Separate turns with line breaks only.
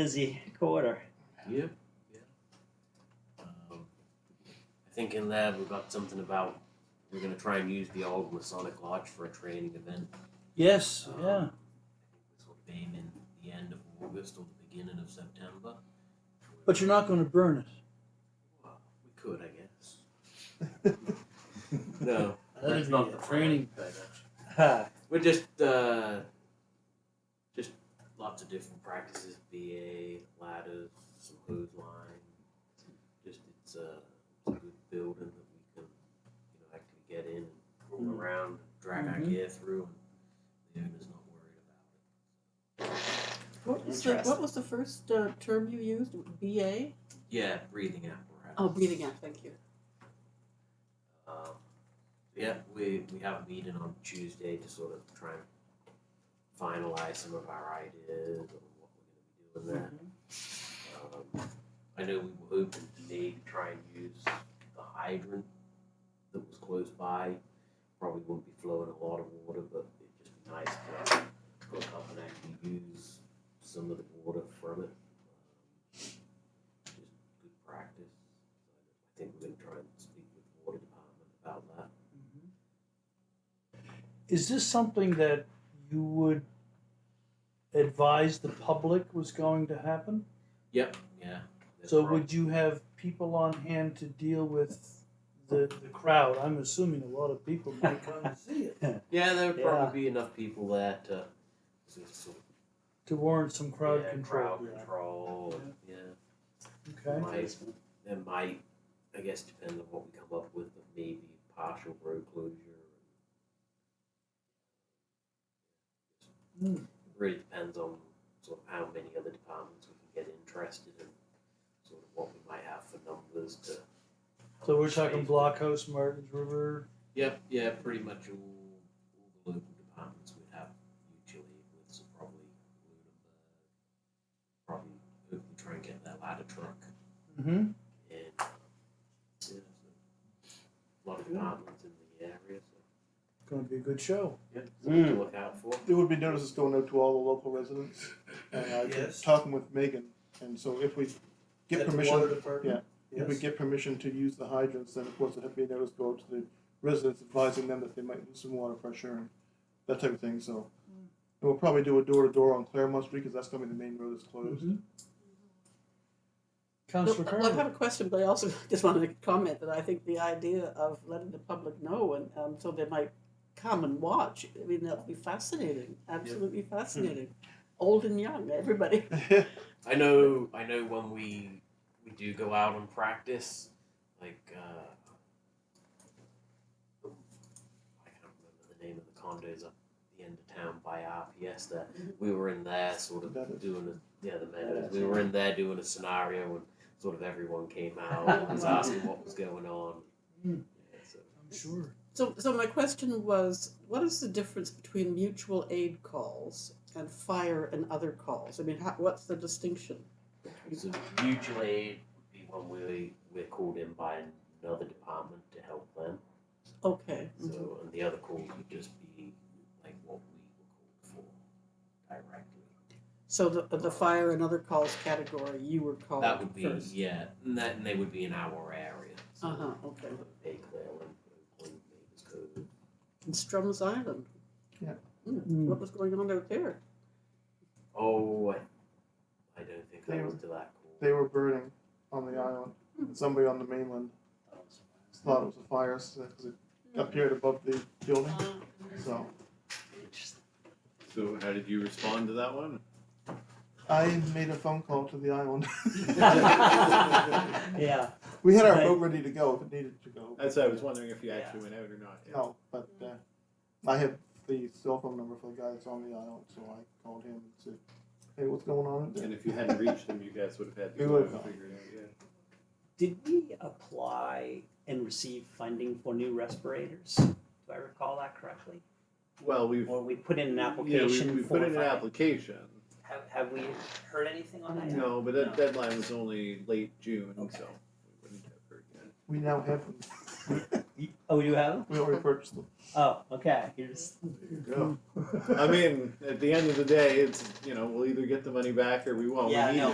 busy quarter.
Yep. Um, I think in that we got something about we're gonna try and use the old Masonic Lodge for a training event.
Yes,
Um,
yeah.
This will be in the end of August or the beginning of September.
But you're not going to burn it.
Well, we could, I guess. No,
That'd
That's
be
not
a
the plan.
training pad.
Ha.
we're just uh, just lots of different practices: BA, ladders, some clothesline. Just it's, uh, it's a good building that we can you know actually get in and
Mm-hmm.
roll around, and drag our
Mhm.
gear through, and the owner's not worried about it.
What was the what
Interesting.
was the first uh, term you used? BA?
Yeah, breathing apparatus.
Oh, breathing out. Thank you.
Um, yeah, we, we have a meeting on Tuesday to sort of try and finalize some of our ideas on what we're going to be doing there. Um, I know we were hoping today to try and use the hydrant that was close by. Probably wouldn't be flowing a lot of water, but it'd just be nice to hook up and actually use some of the water from it. Um, Just good practice. I think we're going to try and speak with the water department about that.
Is this something that you would advise the public was going to happen?
Yep. Yeah. that's
So
right.
would you have people on hand to deal with the, the crowd? I'm assuming a lot of people might come to see it
Yeah, there would
Yeah.
probably be enough people there to sort of- sort of-
to warrant some crowd
yeah,
control.
Crowd control. and, Yeah.
Okay.
Might, there might, I guess, depend on what we come up with, but maybe partial road closure.
Hmm.
It really depends on sort of how many other departments we can get interested in, sort of what we might have for numbers to.
So we're talking Blockhouse, Martins River.
Yep, yeah, pretty much all, all the local departments would have mutual aid with, so probably Lunenburg, probably hopefully try and get that ladder truck
Mm-hmm.
in. Yeah, so a lot of departments in the area, so
Going to be a good show.
yeah, something to
Mm.
look out for.
It would be notices going out to all the local residents. And I
Yes.
was talking with Megan, and so if we get permission, if we
Yes.
get permission to use the hydrants, then of course it'd be a notice go out to the residents advising them that they might lose some water pressure and that type of thing, so. And we'll probably do a door to door on Claremont Street, because that's gonna be the main road that's closed.
Mhm. Councilor
No, I- I
Kerwin.
have a question, but I also just wanted to comment that I think the idea of letting the public know and um, so they might come and watch. I mean, that'll be fascinating. Absolutely fascinating. Old and young, everybody.
I know, I know when we we do go out and practice, like uh, I can't remember the name of the condos at the end of town by RPS. There, we were in there sort of
Meadows.
doing a, yeah the meadows. We were in there doing a scenario and sort of everyone came out and was asking what was going on. Yeah,
Mm.
so
I'm sure.
So, so my question was, what is the difference between mutual aid calls and fire and other calls? I mean, how, what's the distinction?
So mutual aid would be when we we're called in by another department to help them.
Okay.
So and the other calls would just be like what we were called for directly.
So the the fire and other calls category, you were called
that would be
first.
yeah, and that and they would be in our area. So
Uh huh. Okay.
Bay Clearland, Oakland, Mavis Cove.
And Strums Island.
Yeah.
Mm,
Mm.
What was going on out there?
Oh, I, I don't think
They
I
were-
was to that call.
They were burning on the island, and somebody on the mainland thought it was a fire, because it appeared above the building, so.
So how did you respond to that one?
I made a phone call to the island.
yeah.
We had our boat ready to go if it needed to go.
That's what I was wondering if you actually went out or not. yeah.
No, but uh, I have the cell phone number for the guy that's on the island, so I called him and said, "Hey, what's going on?" out there?"
And if you hadn't reached them, you guys would have had to
We
go out
would've
and
gone.
figure it out. Yeah.
Did we apply and receive funding for new respirators? Do I recall that correctly?
Well, we've
Or we put in an
yeah, we,
application
we
for
put in an
funding?
application.
Have, have we heard anything on that? yet?
No, but that
No.
deadline was only late June,
Okay.
so we wouldn't have heard yet.
We now have them.
Y- Oh, you have? 'em?
We already purchased them.
Oh, okay. Here's
I mean, at the end of the day, it's you know we'll either get the money back or we won't.
Yeah,
we need
no,